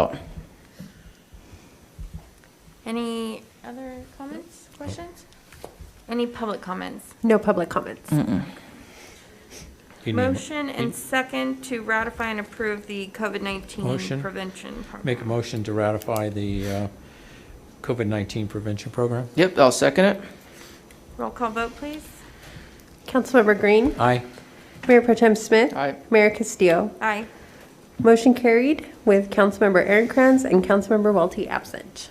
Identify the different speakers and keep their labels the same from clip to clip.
Speaker 1: out.
Speaker 2: Any other comments, questions? Any public comments?
Speaker 3: No public comments.
Speaker 4: You need a mo-
Speaker 2: Motion and second to ratify and approve the COVID-19
Speaker 4: Motion.
Speaker 2: prevention. program.
Speaker 4: Make a motion to ratify the uh, COVID-19 prevention program.
Speaker 1: Yep, I'll second it.
Speaker 2: Roll call vote, please.
Speaker 3: Councilmember Green,
Speaker 4: Aye.
Speaker 3: Mayor Pro Tem Smith.
Speaker 1: Aye.
Speaker 3: Mayor Castillo.
Speaker 2: Aye.
Speaker 3: Motion carried with Councilmember Aaron Kranz and Councilmember Walty absent.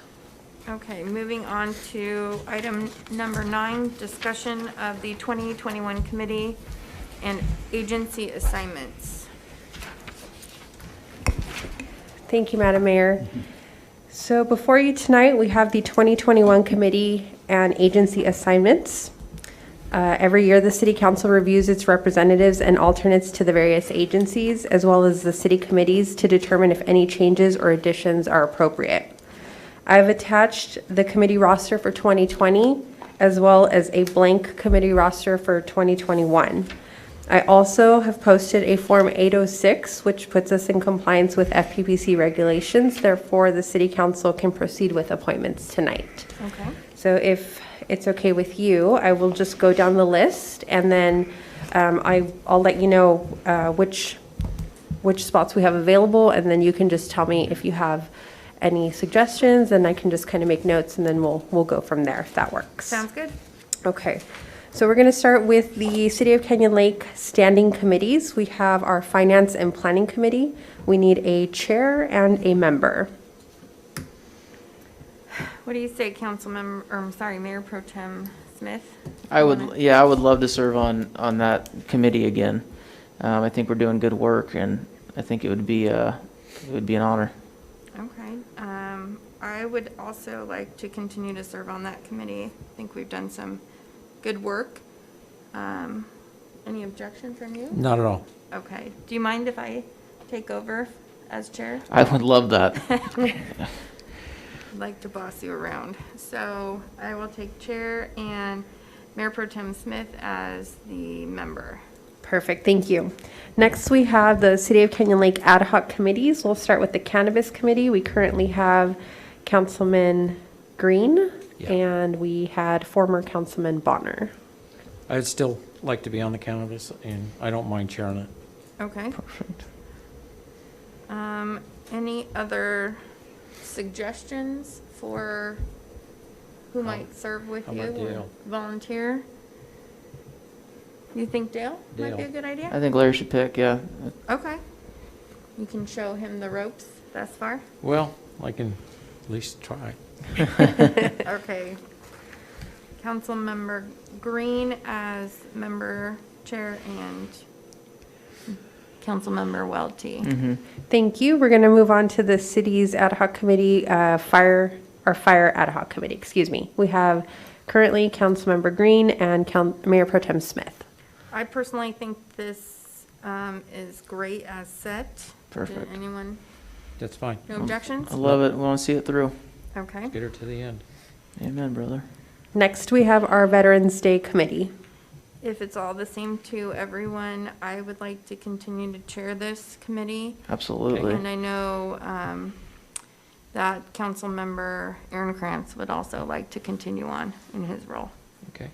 Speaker 2: Okay, moving on to item number nine, discussion of the 2021 committee and agency assignments.
Speaker 3: Thank you, Madam Mayor. So before you tonight, we have the 2021 committee and agency assignments. Uh, Every year, the city council reviews its representatives and alternates to the various agencies, as well as the city committees, to determine if any changes or additions are appropriate. I've attached the committee roster for 2020, as well as a blank committee roster for 2021. I also have posted a Form 806, which puts us in compliance with FPPC regulations. Therefore, the city council can proceed with appointments tonight.
Speaker 2: Okay.
Speaker 3: So if it's okay with you, I will just go down the list, and then um, I, I'll let you know uh, which, which spots we have available, and then you can just tell me if you have any suggestions, and I can just kind of make notes, and then we'll, we'll go from there, if that works.
Speaker 2: Sounds good?
Speaker 3: Okay, so we're going to start with the City of Canyon Lake Standing Committees. We have our Finance and Planning Committee. We need a chair and a member.
Speaker 2: What do you say, Councilmember, or I'm sorry, Mayor Pro Tem Smith?
Speaker 1: I would,
Speaker 2: Wanna-
Speaker 1: yeah, I would love to serve on, on that committee again. Um, I think we're doing good work and I think it would be, uh, it would be an honor.
Speaker 2: Okay, um, I would also like to continue to serve on that committee. I think we've done some good work. Um, any objection from you?
Speaker 4: Not at all.
Speaker 2: Okay, do you mind if I take over as chair?
Speaker 1: I would love that.
Speaker 2: I'd like to boss you around. So I will take chair and Mayor Pro Tem Smith as the member.
Speaker 3: Perfect, thank you. Next, we have the City of Canyon Lake Ad hoc Committees. We'll start with the Cannabis Committee. We currently have Councilman Green,
Speaker 4: Yeah.
Speaker 3: and we had former Councilman Bonner.
Speaker 4: I'd still like to be on the cannabis, and I don't mind chairing it.
Speaker 2: Okay. Um, any other suggestions for who might serve with
Speaker 4: how
Speaker 2: you?
Speaker 4: about
Speaker 2: or
Speaker 4: Dale?
Speaker 2: Volunteer? You think Dale might be a
Speaker 4: Dale.
Speaker 2: good
Speaker 1: I
Speaker 2: idea?
Speaker 1: think Larry should pick, yeah.
Speaker 2: Okay. You can show him the ropes thus far.
Speaker 4: Well, I can at least try.
Speaker 2: Okay. Councilmember Green as member chair and Councilmember Welty.
Speaker 1: Mhm.
Speaker 3: Thank you. We're going to move on to the city's ad hoc committee, uh, fire, or fire ad hoc committee, excuse me. We have currently Councilmember Green and Coun- Mayor Pro Tem Smith.
Speaker 2: I personally think this um, is great as set. Did
Speaker 1: Perfect. Um,
Speaker 2: Anyone,
Speaker 4: That's fine.
Speaker 2: no objections?
Speaker 1: I love it. We want to see it through.
Speaker 2: Okay.
Speaker 4: Get her to the end.
Speaker 1: Amen, brother.
Speaker 3: Next, we have our Veterans Day Committee.
Speaker 2: If it's all the same to everyone, I would like to continue to chair this committee. And
Speaker 1: Absolutely.
Speaker 2: I know um, that Councilmember Aaron Krantz would also like to continue on in his role.
Speaker 4: Okay.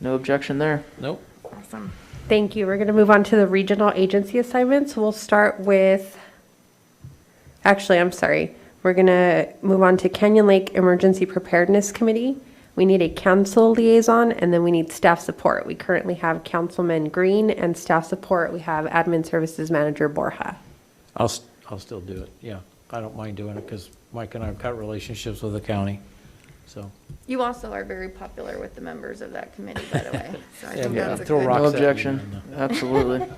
Speaker 1: No objection there.
Speaker 4: Nope.
Speaker 2: Awesome.
Speaker 3: Thank you. We're going to move on to the regional agency assignments. We'll start with, actually, I'm sorry. We're going to move on to Canyon Lake Emergency Preparedness Committee. We need a council liaison, and then we need staff support. We currently have Councilman Green, and staff support, we have Admin Services Manager Borja.
Speaker 4: I'll, s- I'll still do it, yeah. I don't mind doing it, because Mike and I have cut relationships with the county, so.
Speaker 2: You also are very popular with the members of that committee, by the way. So I
Speaker 4: Yeah,
Speaker 2: think
Speaker 4: yeah,
Speaker 2: that's a
Speaker 4: throw
Speaker 2: good-
Speaker 4: rocks
Speaker 1: No
Speaker 4: at me
Speaker 1: objection.
Speaker 4: on
Speaker 1: Absolutely.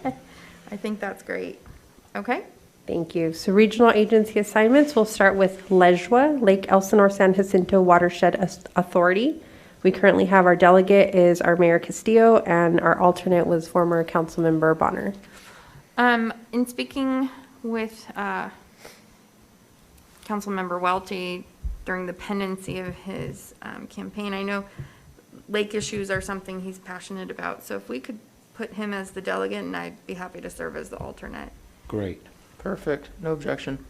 Speaker 2: I think that's great. Okay?
Speaker 3: Thank you. So regional agency assignments, we'll start with LEJWA, Lake Elsinore San Jacinto Watershed As- Authority. We currently have our delegate is our Mayor Castillo, and our alternate was former Councilmember Bonner.
Speaker 2: Um, in speaking with, uh, Councilmember Welty during the pendency of his, um, campaign, I know lake issues are something he's passionate about, so if we could put him as the delegate, and I'd be happy to serve as the alternate.
Speaker 4: Great.
Speaker 1: Perfect. No objection.